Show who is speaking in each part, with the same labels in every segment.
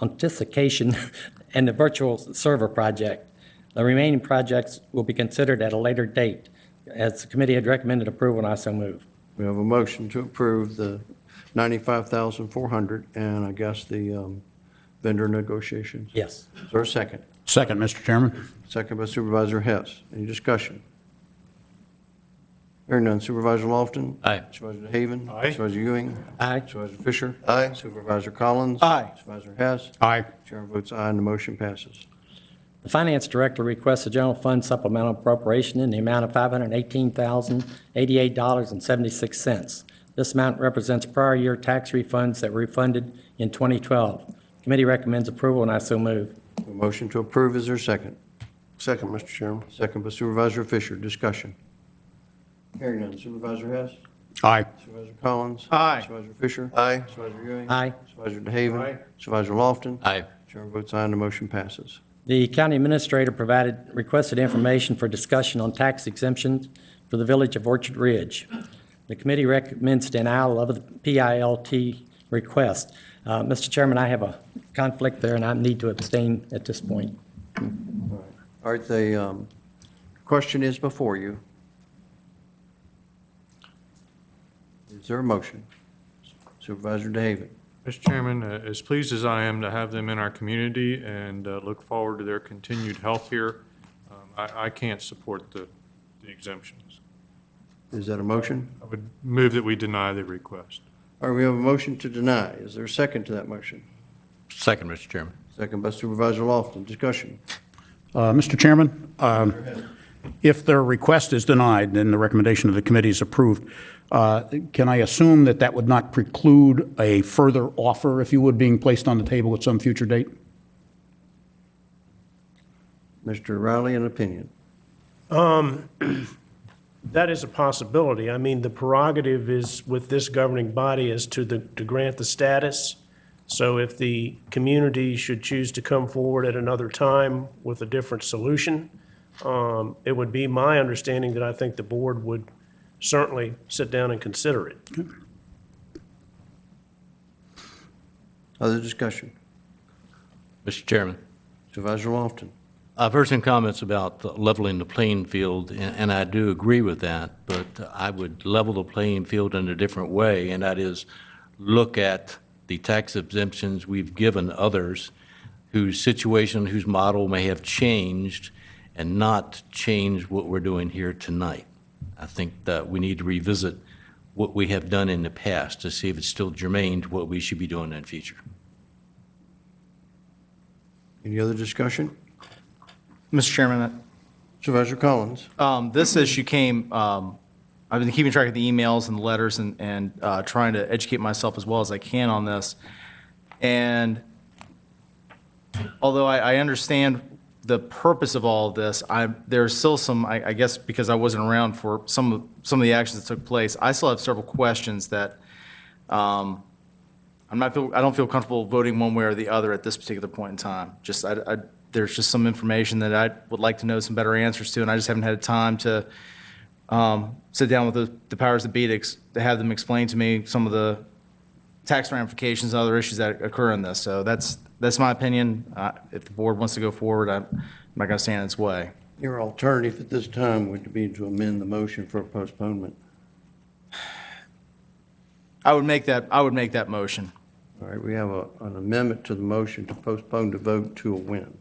Speaker 1: authentication and the virtual server project. The remaining projects will be considered at a later date. As the committee had recommended approval, and I so move.
Speaker 2: We have a motion to approve the 95,400 and I guess the um, vendor negotiations.
Speaker 1: Yes.
Speaker 2: Is there a second?
Speaker 3: Second, Mr. Chairman.
Speaker 2: Second by Supervisor Hess. Any discussion? Hearing none. Supervisor Lofton?
Speaker 3: Aye.
Speaker 2: Supervisor Haven?
Speaker 3: Aye.
Speaker 2: Supervisor Ewing?
Speaker 1: Aye.
Speaker 2: Supervisor Fisher?
Speaker 4: Aye.
Speaker 2: Supervisor Collins?
Speaker 3: Aye.
Speaker 2: Supervisor Hess?
Speaker 3: Aye.
Speaker 2: Chair votes aye and the motion passes.
Speaker 1: The finance director requests a general fund supplemental appropriation in the amount of $518,088.76. This amount represents prior year tax refunds that were refunded in 2012. Committee recommends approval, and I so move.
Speaker 2: A motion to approve. Is there a second?
Speaker 4: Second, Mr. Chairman.
Speaker 2: Second by Supervisor Fisher. Discussion. Hearing none. Supervisor Hess?
Speaker 3: Aye.
Speaker 2: Supervisor Collins?
Speaker 3: Aye.
Speaker 2: Supervisor Fisher?
Speaker 4: Aye.
Speaker 2: Supervisor Ewing?
Speaker 1: Aye.
Speaker 2: Supervisor DeHaven?
Speaker 3: Aye.
Speaker 2: Supervisor Lofton?
Speaker 3: Aye.
Speaker 2: Chair votes aye and the motion passes.
Speaker 1: The county administrator provided requested information for discussion on tax exemptions for the village of Orchard Ridge. The committee recommends denial of the PILT request. Uh, Mr. Chairman, I have a conflict there, and I need to abstain at this point.
Speaker 2: All right, the um, question is before you. Is there a motion? Supervisor DeHaven?
Speaker 5: Mr. Chairman, uh, as pleased as I am to have them in our community and uh, look forward to their continued health here, um, I I can't support the the exemptions.
Speaker 2: Is that a motion?
Speaker 5: I would move that we deny the request.
Speaker 2: All right, we have a motion to deny. Is there a second to that motion?
Speaker 6: Second, Mr. Chairman.
Speaker 2: Second by Supervisor Lofton. Discussion.
Speaker 3: Uh, Mr. Chairman, um, if their request is denied, then the recommendation of the committee is approved. Uh, Can I assume that that would not preclude a further offer, if you would, being placed on the table at some future date?
Speaker 2: Mr. Riley, an opinion.
Speaker 7: Um, That is a possibility. I mean, the prerogative is with this governing body is to the, to grant the status. So if the community should choose to come forward at another time with a different solution, um, it would be my understanding that I think the board would certainly sit down and consider it.
Speaker 2: Other discussion.
Speaker 6: Mr. Chairman,
Speaker 2: Supervisor Lofton.
Speaker 6: I've heard some comments about leveling the playing field, and and I do agree with that, but I would level the playing field in a different way, and that is look at the tax exemptions we've given others whose situation, whose model may have changed, and not change what we're doing here tonight. I think that we need to revisit what we have done in the past to see if it's still germane to what we should be doing in the future.
Speaker 2: Any other discussion?
Speaker 8: Mr. Chairman,
Speaker 2: Supervisor Collins.
Speaker 8: um, this issue came, um, I've been keeping track of the emails and the letters and, and uh, trying to educate myself as well as I can on this. And although I, I understand the purpose of all of this, I, there's still some, I, I guess because I wasn't around for some, of some of the actions that took place, I still have several questions that um, I'm not, feel- I don't feel comfortable voting one way or the other at this particular point in time. Just, I, I, there's just some information that I would like to know some better answers to, and I just haven't had time to um, sit down with the, the powers that be to ex- to have them explain to me some of the tax ramifications and other issues that occur in this. So that's, that's my opinion. Uh, If the board wants to go forward, I'm I'm not going to stand in its way.
Speaker 2: Your alternative at this time would be to amend the motion for postponement.
Speaker 8: I would make that, I would make that motion.
Speaker 2: All right, we have a- an amendment to the motion to postpone the vote to a win.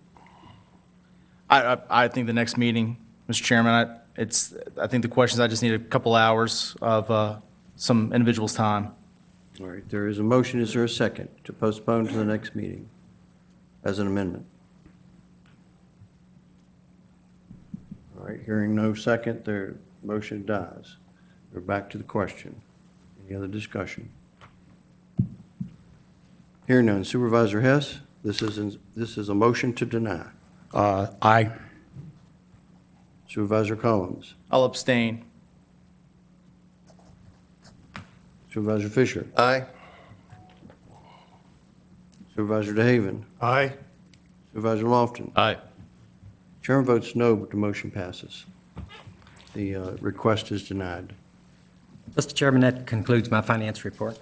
Speaker 8: I, I, I think the next meeting, Mr. Chairman, I, it's, I think the questions, I just need a couple hours of, uh, some individual's time.
Speaker 2: All right, there is a motion, is there a second, to postpone to the next meeting as an amendment? All right, hearing no second, their motion dies. We're back to the question. Any other discussion? Hearing none, Supervisor Hess, this is, in- this is a motion to deny.
Speaker 3: Uh, Aye.
Speaker 2: Supervisor Collins,
Speaker 8: I'll abstain.
Speaker 2: Supervisor Fisher,
Speaker 4: Aye.
Speaker 2: Supervisor DeHaven,
Speaker 5: Aye.
Speaker 2: Supervisor Lofton,
Speaker 6: Aye.
Speaker 2: Chairman votes no, but the motion passes. The uh, request is denied.
Speaker 1: Mr. Chairman, that concludes my finance report.